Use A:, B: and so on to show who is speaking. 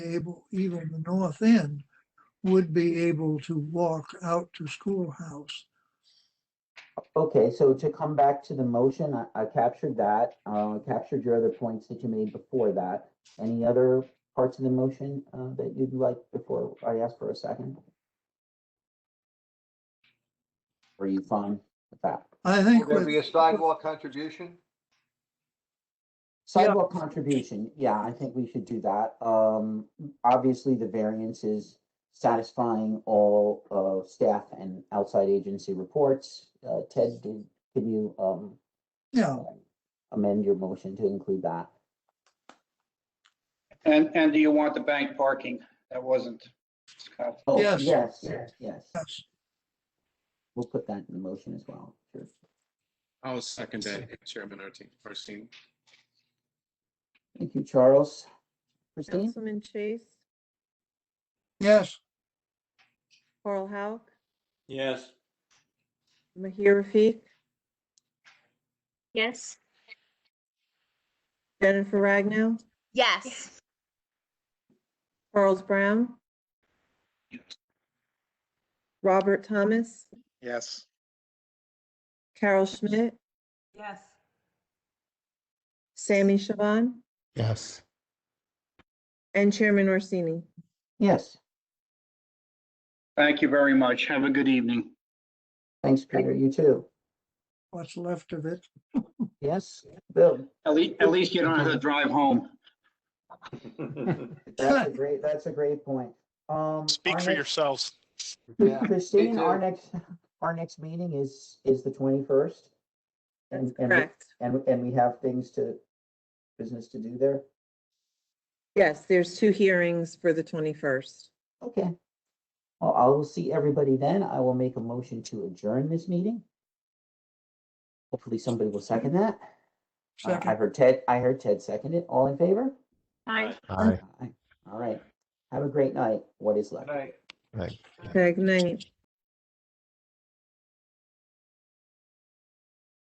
A: able, even the north end, would be able to walk out to schoolhouse.
B: Okay, so to come back to the motion, I, I captured that, uh, captured your other points that you made before that. Any other parts of the motion, uh, that you'd like before I ask for a second? Are you fine with that?
A: I
C: Will
A: think,
C: there be
A: with-
C: a sidewalk contribution?
A: Yeah.
B: Sidewalk contribution, yeah, I think we should do that. Um, obviously, the variance is satisfying all of staff and outside agency reports. Uh, Ted, did, can you, um,
A: yeah,
B: amend your motion to include that?
D: And, and do you want the bank parking? That wasn't, Scott.
B: Oh,
A: Yes.
B: Yes, yes.
A: yes.
B: We'll put that in the motion as well. Sure.
E: I'll second that, Chairman Arti- Arstine.
B: Thank you, Charles. Christine?
F: Councilman Chase,
A: Yes,
F: Carl Hauck,
G: yes,
F: Mahir Rafik,
H: Yes.
F: Jennifer Ragnow,
H: Yes.
F: Charles Brown, Robert Thomas,
D: Yes.
F: Carol Schmidt,
I: yes,
F: Sammy Shaban,
J: yes,
F: and Chairman Orsini.
B: Yes,
D: Thank you very much. Have a good evening.
B: thanks, Peter. You too.
A: what's left of it.
B: Yes, Bill?
D: At least, at least you don't have to drive home.
B: That's a great, that's a great point. Um. our next-
K: yourselves.
C: Yeah, me
B: Christine, our
C: too.
B: next, our next meeting is, is the twenty-first. And, and, we-
F: Correct.
B: and, and we have things to, business to do there.
F: Yes, there's two hearings for the 21st.
B: Okay. Well, I will see everybody then. I will make a motion to adjourn this meeting. Hopefully somebody will second that. Uh, I
A: Second,
B: heard Ted, I heard Ted second it. All in favor?
H: Hi.
J: aye,
B: Aye. All right. Have a great night. What is left?
C: Good night.
J: right.
F: Okay, Good night.